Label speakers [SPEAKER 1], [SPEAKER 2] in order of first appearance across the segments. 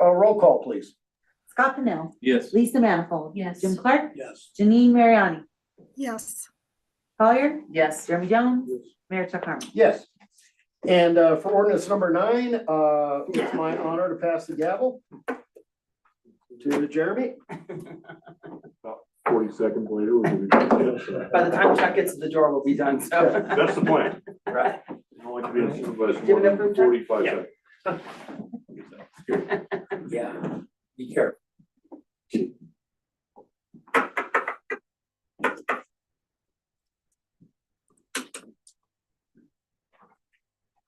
[SPEAKER 1] Uh, roll call, please.
[SPEAKER 2] Scott Pennell,
[SPEAKER 3] Yes.
[SPEAKER 2] Lisa Manifold.
[SPEAKER 4] Yes.
[SPEAKER 2] Jim Clark,
[SPEAKER 1] Yes.
[SPEAKER 2] Janine Mariani,
[SPEAKER 5] yes,
[SPEAKER 2] Collier,
[SPEAKER 4] Yes.
[SPEAKER 2] Jeremy Jones, Mayor Chuck Harmon.
[SPEAKER 1] Yes. And, uh, for ordinance number nine, uh, it's my honor to pass the gavel to Jeremy.
[SPEAKER 6] forty seconds later, we'll be. That's
[SPEAKER 7] By the time Chuck gets to the door, we'll be done, so.
[SPEAKER 6] the plan.
[SPEAKER 7] Right.
[SPEAKER 6] I don't like to be a supervisor
[SPEAKER 7] Give it
[SPEAKER 6] more
[SPEAKER 7] up
[SPEAKER 6] than
[SPEAKER 7] for-
[SPEAKER 6] forty-five
[SPEAKER 7] Yeah.
[SPEAKER 6] seconds.
[SPEAKER 7] Yeah, be careful.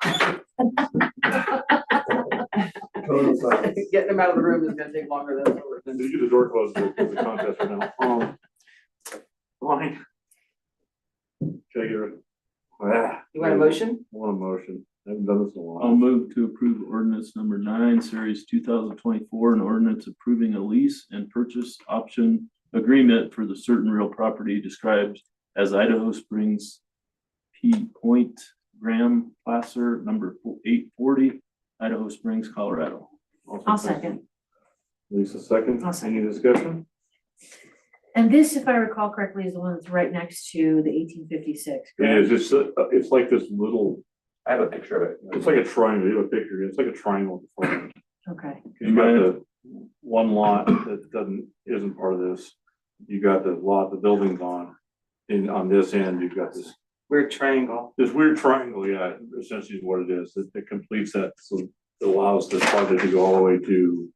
[SPEAKER 7] Getting him out of the room is gonna take longer than.
[SPEAKER 6] Did you get the door closed for the contest right now? Um, Line. Can I get it? Ah,
[SPEAKER 7] You want a motion?
[SPEAKER 6] Want a motion? I haven't done this in a
[SPEAKER 3] I'll
[SPEAKER 6] while.
[SPEAKER 3] move to approve ordinance number nine, series two thousand twenty-four, an ordinance approving a lease and purchase option agreement for the certain real property described as Idaho Springs P Point Graham Placer, number eight forty, Idaho Springs, Colorado.
[SPEAKER 6] Also Lisa second.
[SPEAKER 4] I'll second.
[SPEAKER 6] Any discussion?
[SPEAKER 4] And this, if I recall correctly, is the one that's right next to the eighteen fifty-six.
[SPEAKER 6] Yeah, it's just, uh, it's like this little,
[SPEAKER 3] I have a picture of it.
[SPEAKER 6] it's like a triangle, you have a picture, it's like a triangle.
[SPEAKER 4] Okay,
[SPEAKER 6] You got the one lot that doesn't, isn't part of this. You got the lot the building's on. And on this end, you've got this,
[SPEAKER 7] Weird triangle.
[SPEAKER 6] this weird triangle, yeah, essentially is what it is, that that completes that, so it allows this project to go all the way to.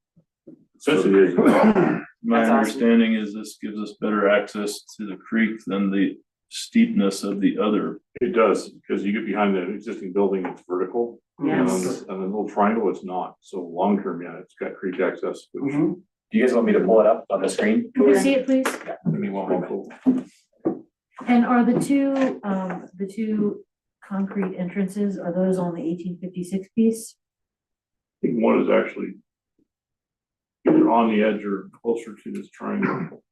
[SPEAKER 6] Essentially, it is.
[SPEAKER 3] My
[SPEAKER 7] That's awesome.
[SPEAKER 3] understanding is this gives us better access to the creek than the steepness of the other.
[SPEAKER 6] it does, because you get behind the existing building, it's vertical. And on
[SPEAKER 4] Yes.
[SPEAKER 6] this- on the little triangle, it's not, so long term, yeah, it's got creek access. which is
[SPEAKER 8] Do you guys want me to pull it up on the screen?
[SPEAKER 4] can we see it, please?
[SPEAKER 8] Give me one
[SPEAKER 6] pretty
[SPEAKER 8] moment.
[SPEAKER 6] cool.
[SPEAKER 4] And are the two, um, the two concrete entrances, are those on the eighteen fifty-six piece?
[SPEAKER 6] I think one is actually either on the edge or closer to this triangle.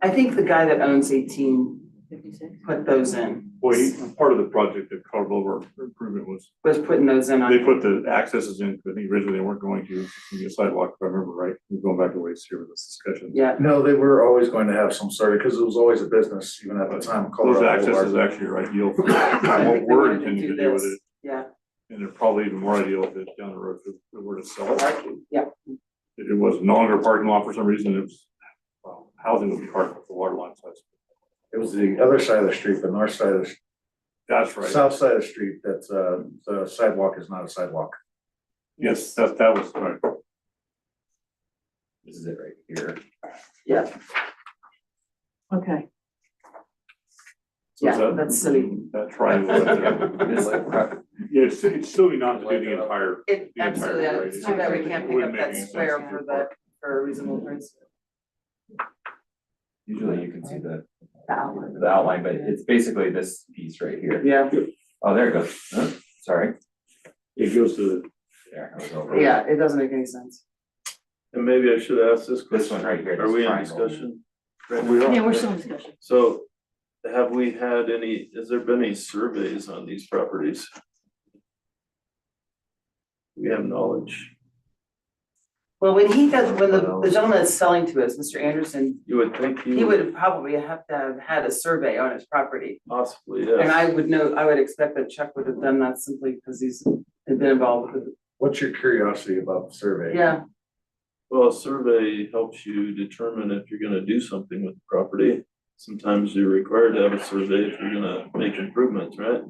[SPEAKER 7] I think the guy that owns eighteen
[SPEAKER 4] Fifty-six.
[SPEAKER 7] put those in,
[SPEAKER 6] Well, he- part of the project that Carl Over improvement was,
[SPEAKER 7] was putting those in
[SPEAKER 6] they
[SPEAKER 7] on,
[SPEAKER 6] put the accesses in, but I think originally they weren't going to, it's gonna be a sidewalk, if I remember right. We're going back a ways here with this discussion.
[SPEAKER 7] yeah,
[SPEAKER 8] No, they were always going to have some sort, because it was always a business, even at the time.
[SPEAKER 6] Those
[SPEAKER 8] Colorado
[SPEAKER 6] accesses
[SPEAKER 8] Boulevard.
[SPEAKER 6] actually are ideal.
[SPEAKER 7] I
[SPEAKER 6] for- What
[SPEAKER 7] think they
[SPEAKER 6] we're
[SPEAKER 7] wanted to
[SPEAKER 6] intending to
[SPEAKER 7] do
[SPEAKER 6] do with
[SPEAKER 7] this.
[SPEAKER 6] it,
[SPEAKER 7] yeah,
[SPEAKER 6] and they're probably even more ideal if it's down the road, if we were to sell it.
[SPEAKER 7] parking, yeah.
[SPEAKER 6] It was no longer a parking lot for some reason, it was, well, housing was part of the water line, so that's-
[SPEAKER 8] It was the other side of the street, the north side of, the
[SPEAKER 6] that's
[SPEAKER 8] s-
[SPEAKER 6] right.
[SPEAKER 8] south side of the street, that, uh, the sidewalk is not a sidewalk.
[SPEAKER 6] Yes, that, that was right.
[SPEAKER 8] This is it right here.
[SPEAKER 4] Okay,
[SPEAKER 6] So is
[SPEAKER 7] Yeah,
[SPEAKER 6] that-
[SPEAKER 7] that's silly.
[SPEAKER 6] That triangle. up there. Yeah, it's, it's silly not to do the entire.
[SPEAKER 7] It,
[SPEAKER 6] the entire
[SPEAKER 7] absolutely,
[SPEAKER 6] rate.
[SPEAKER 7] it's too bad we can't
[SPEAKER 6] It
[SPEAKER 7] pick
[SPEAKER 6] wouldn't
[SPEAKER 7] up
[SPEAKER 6] make
[SPEAKER 7] that
[SPEAKER 6] any sense
[SPEAKER 7] square
[SPEAKER 6] if
[SPEAKER 7] for
[SPEAKER 6] you're
[SPEAKER 7] the, for a reasonable price.
[SPEAKER 8] Usually you can see the,
[SPEAKER 2] Bauer.
[SPEAKER 8] the outline, but it's basically this piece right here.
[SPEAKER 7] Yeah,
[SPEAKER 8] Oh, there it goes. Huh? Sorry.
[SPEAKER 6] It goes to.
[SPEAKER 8] There, I was over.
[SPEAKER 7] yeah, it doesn't make any sense.
[SPEAKER 3] And maybe I should ask this
[SPEAKER 8] This one
[SPEAKER 3] question.
[SPEAKER 8] right here.
[SPEAKER 3] Are
[SPEAKER 8] this
[SPEAKER 3] we in
[SPEAKER 8] triangle.
[SPEAKER 3] discussion?
[SPEAKER 4] yeah, we're still in discussion.
[SPEAKER 3] So have we had any, has there been any surveys on these properties? We have knowledge.
[SPEAKER 7] Well, when he does, when the, the gentleman that's selling to us, Mr. Anderson,
[SPEAKER 3] You would think
[SPEAKER 7] he
[SPEAKER 3] you would
[SPEAKER 7] would probably have to have had a survey on his property.
[SPEAKER 3] possibly,
[SPEAKER 7] And I
[SPEAKER 3] yes.
[SPEAKER 7] would know, I would expect that Chuck would have done that simply because he's had been involved with it.
[SPEAKER 8] What's your curiosity about the survey?
[SPEAKER 7] Yeah,
[SPEAKER 3] Well, a survey helps you determine if you're gonna do something with the property. Sometimes you're required to have a survey if you're gonna make improvements, right?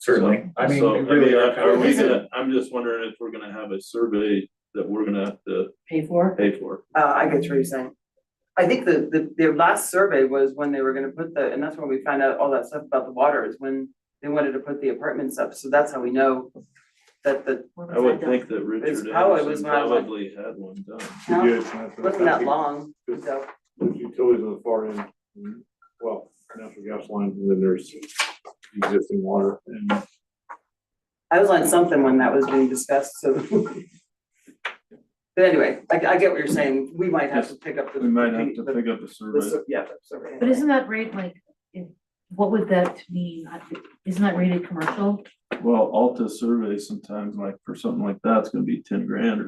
[SPEAKER 8] Certainly. I mean,
[SPEAKER 3] So,
[SPEAKER 8] we really.
[SPEAKER 3] I- Are we
[SPEAKER 8] Is it-
[SPEAKER 3] gonna, I'm just wondering if we're gonna have a survey that we're gonna have to
[SPEAKER 4] Pay for?
[SPEAKER 3] pay for.
[SPEAKER 7] uh, I get what you're saying. I think the, the, their last survey was when they were gonna put the, and that's when we found out all that stuff about the water is when they wanted to put the apartments up. So that's how we know that the,
[SPEAKER 4] What
[SPEAKER 3] I
[SPEAKER 4] was
[SPEAKER 3] would
[SPEAKER 4] done?
[SPEAKER 3] think that Richard
[SPEAKER 7] probably
[SPEAKER 3] Anderson
[SPEAKER 7] was when I was-
[SPEAKER 3] probably had one done.
[SPEAKER 7] No,
[SPEAKER 6] Yeah, it's not-
[SPEAKER 7] wasn't that long,
[SPEAKER 6] There's
[SPEAKER 7] so.
[SPEAKER 6] there's utilities on the far end, and, well, natural gas lines, and then there's existing water and.
[SPEAKER 7] I was on something when that was being discussed, so. But anyway, I, I get what you're saying, we might have to pick up the.
[SPEAKER 3] We might have to
[SPEAKER 7] the-
[SPEAKER 3] pick up a
[SPEAKER 7] the
[SPEAKER 3] survey.
[SPEAKER 7] sur- Yeah, the survey.
[SPEAKER 4] But isn't that rate like, if- what would that mean? I- Isn't that rated commercial?
[SPEAKER 3] Well, Alta survey sometimes like for something like that, it's gonna be ten grand or